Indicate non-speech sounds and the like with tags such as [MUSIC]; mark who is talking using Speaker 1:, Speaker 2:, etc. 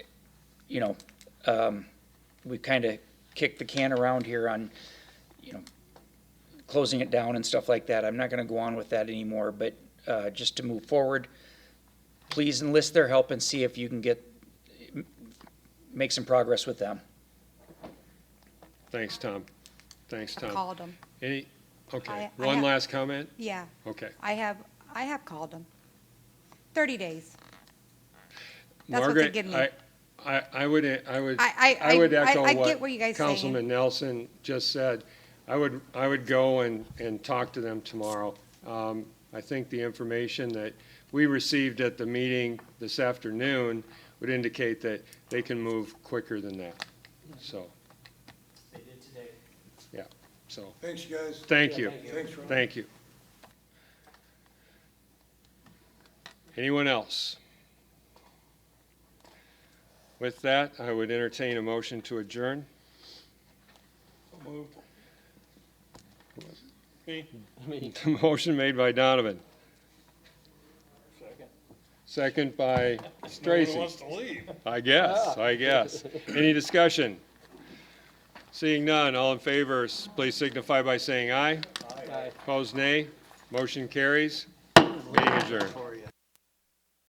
Speaker 1: you know, um, we kind of kicked the can around here on, you know, closing it down and stuff like that. I'm not going to go on with that anymore, but, uh, just to move forward, please enlist their help and see if you can get, make some progress with them.
Speaker 2: Thanks, Tom. Thanks,
Speaker 3: I
Speaker 2: Tom.
Speaker 3: called them,
Speaker 2: Any,
Speaker 3: I-
Speaker 2: okay,
Speaker 3: I
Speaker 2: one
Speaker 3: have-
Speaker 2: last comment?
Speaker 3: yeah.
Speaker 2: Okay.
Speaker 3: I have, I have called them. 30 days. That's what they're
Speaker 2: Margaret,
Speaker 3: getting.
Speaker 2: I, I, I would, I would,
Speaker 3: I- I-
Speaker 2: I would
Speaker 3: I- I-
Speaker 2: echo
Speaker 3: I get what you
Speaker 2: what
Speaker 3: guys saying.
Speaker 2: Councilman Nelson just said. I would, I would go and, and talk to them tomorrow. Um, I think the information that we received at the meeting this afternoon would indicate that they can move quicker than that, so. They did today. Yeah, so,
Speaker 4: Thanks, guys.
Speaker 2: thank you.
Speaker 4: Thanks, Ron.
Speaker 2: Thank you. Anyone else? With that, I would entertain a motion to adjourn. [LAUGHS] Motion made by Donovan. Second by Stracy. I guess, I guess. Any discussion? Seeing none, all in favor, s- please signify by saying aye. Opposed, nay. Motion carries. Meeting adjourned.